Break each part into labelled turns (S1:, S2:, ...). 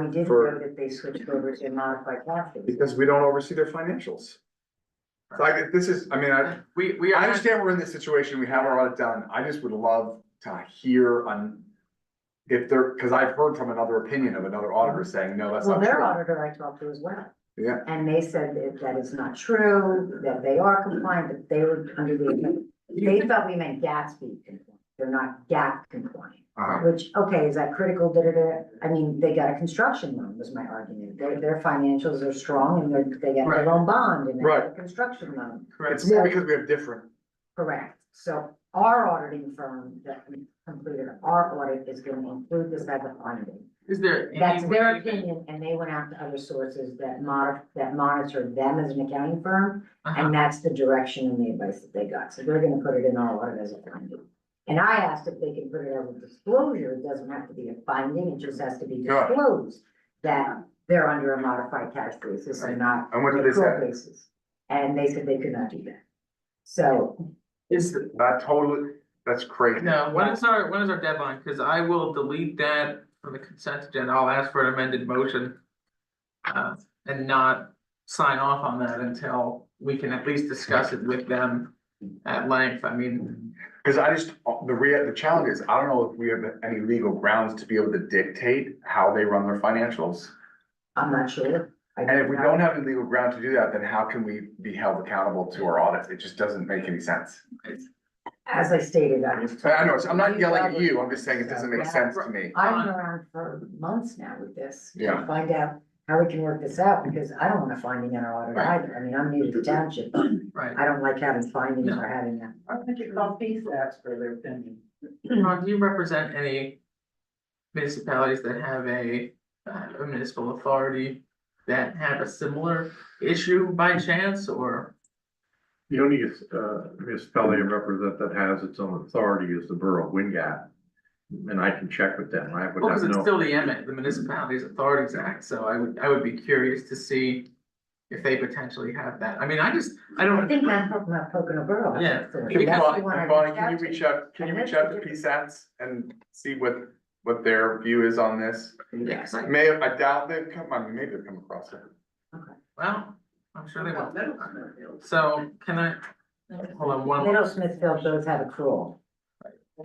S1: We didn't
S2: For-
S1: know that they switched over to modified taxes.
S2: because we don't oversee their financials. So I get, this is, I mean, I,
S3: We, we
S2: I
S3: are,
S2: understand we're in this situation, we have our audit done, I just would love to hear on. If there, cause I've heard from another opinion of another auditor saying, no, that's
S1: Well,
S2: not
S1: their
S2: true.
S1: auditor I talked to as well.
S2: Yeah.
S1: And they said that that is not true, that they are compliant, that they were under the, they thought we meant Gatsby compliant. They're not GAP compliant.
S2: Uh-huh.
S1: Which, okay, is that critical, da, da, da, I mean, they got a construction loan, was my argument, their, their financials are strong and they're, they got
S3: Right.
S1: their own bond and they got a
S2: Right.
S1: construction loan,
S2: It's more because we have different,
S1: correct? So our auditing firm that completed our audit is gonna include this as a finding.
S3: is there
S1: That's
S3: any
S1: their
S3: way that?
S1: opinion, and they went out to other sources that mod, that monitor them as an accounting firm,
S3: Uh-huh.
S1: and that's the direction and the advice that they got, so they're gonna put it in our audit as a finding. And I asked if they can put it as a disclosure, it doesn't have to be a finding, it just has to be
S2: Right.
S1: disclosed that they're under a modified tax basis and not
S2: and what
S1: an
S2: did they
S1: accrual
S2: say?
S1: basis. And they said they could not do that. So,
S3: Is,
S2: That totally, that's crazy.
S3: no, when is our, when is our deadline? Cause I will delete that from the consent agenda. I'll ask for an amended motion. Uh, and not sign off on that until we can at least discuss it with them at length. I mean,
S2: Cause I just, the rea, the challenge is, I don't know if we have any legal grounds to be able to dictate how they run their financials.
S1: I'm not sure.
S2: And if we don't have any legal ground to do that, then how can we be held accountable to our audits? It just doesn't make any sense.
S1: As I stated, I was.
S2: But I know, it's- I'm not yelling at you, I'm just saying it doesn't make sense to me.
S1: I've
S3: on-
S1: been around for months now with this,
S2: Yeah.
S1: to find out how we can work this out, because I don't want a finding in our audit
S2: Right.
S1: either, I mean, I'm new to the township.
S3: right.
S1: I don't like having findings or having that.
S4: I think it called FISACs for their opinion.
S3: Ron, do you represent any municipalities that have a uh, a municipal authority that have a similar issue by chance or?
S5: The only uh, municipality I represent that has its own authority is the borough of Wingat. And I can check with them, I would
S3: Well,
S5: have
S3: because it's
S5: no,
S3: still the Emmett, the Municipalities Authorities Act, so I would, I would be curious to see if they potentially have that. I mean, I just, I
S1: I
S3: don't,
S1: think Mount Poc- Mount Pocono Borough.
S3: Yeah.
S1: That's the one.
S2: Can
S3: Because-
S1: That's the one I
S2: Bonnie, Bonnie, can
S1: reached
S2: you
S1: out to.
S2: reach out, can you reach out to PSATs and see what, what their view is on this?
S3: yes, I-
S2: May, I doubt they've come, I mean, maybe they've come across it.
S3: well, I'm sure they
S4: Well,
S3: will.
S4: middle school.
S3: So can I, hold on, one,
S1: Middle Smithfield does have a crawl.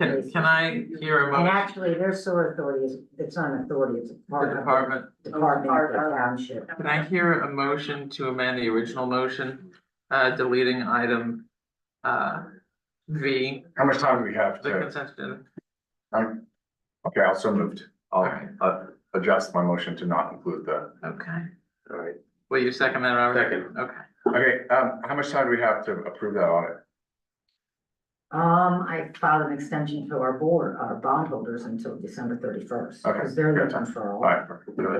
S3: can, can I um, hear a
S1: And
S3: motion
S1: actually, their sewer authority is, it's not an authority, it's a
S3: from
S1: part of
S3: the department?
S1: the
S4: Oh,
S1: department of the township.
S3: Can I hear a motion to amend the original motion, uh, deleting item, uh, V,
S2: How much time do we have
S3: the
S2: to,
S3: consent agenda?
S2: um, okay, I'll so moved. I'll,
S3: Alright.
S2: uh, adjust my motion to not include the.
S3: Okay,
S2: Alright.
S3: will you second that, Robert?
S5: Second.
S3: Okay,
S2: Okay, um, how much time do we have to approve that audit?
S1: Um, I filed an extension to our board, our bondholders until December thirty-first.
S2: Okay,
S1: Because they're
S2: good.
S1: looking for all.
S2: Alright,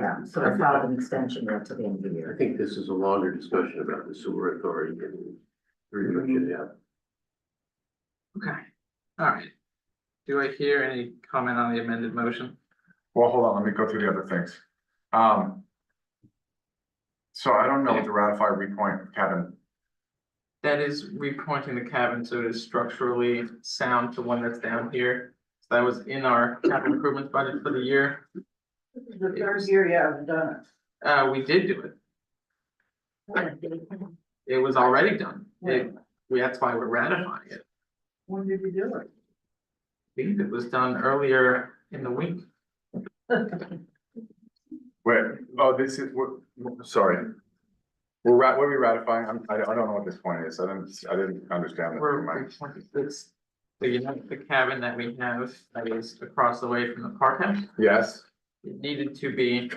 S1: Yeah, so I filed an extension there till the end of the
S6: I
S1: year.
S6: think this is a longer discussion about the sewer authority and relook it out.
S3: okay, all right. Do I hear any comment on the amended motion?
S2: well, hold on, let me go through the other things. Um. So I don't know what to ratify, repoint, Kevin,
S3: That is repointing the cabin so it is structurally sound to one that's down here. So that was in our capital improvements budget for the year,
S4: This is The third year you haven't done
S3: uh, we did do it,
S4: it.
S3: it was already done. It, we, that's why we're ratifying it.
S4: When did you do it?
S3: believe it was done earlier in the week.
S2: wait, oh, this is, we're, we're- sorry. We're rat, what are we ratifying? I'm, I don't, I don't know what this point is, I didn't, I didn't understand that.
S3: We're,
S2: Never
S3: we're
S2: mind.
S3: twenty- it's, so you know, the cabin that we have that is across the way from the park house,
S2: Yes,
S3: it needed to be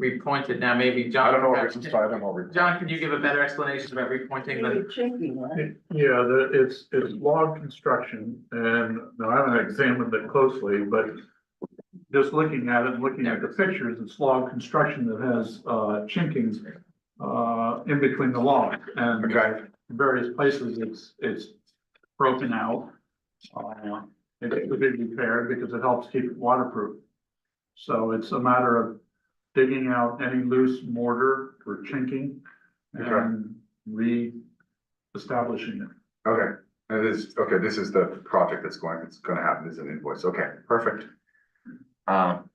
S3: repointed. Now, maybe
S2: I
S3: John.
S2: don't know, what
S3: perhaps-
S2: I'm sorry, I don't know. what we-
S3: John, can you give a better explanation about repointing
S4: Maybe
S3: the,
S4: chinky, huh?
S5: yeah, the, it's, it's log construction and now I haven't examined it closely, but just looking at it, and looking at the pictures, it's log construction that has, uh, chinkings uh, in between the logs and
S2: Okay,
S5: various places, it's, it's broken out. Uh, It should be repaired because it helps keep it waterproof. So it's a matter of digging out any loose mortar or chinking and re-establishing it.
S2: okay, and this, okay, this is the project that's going, it's gonna happen, this is an invoice, okay, perfect. Um,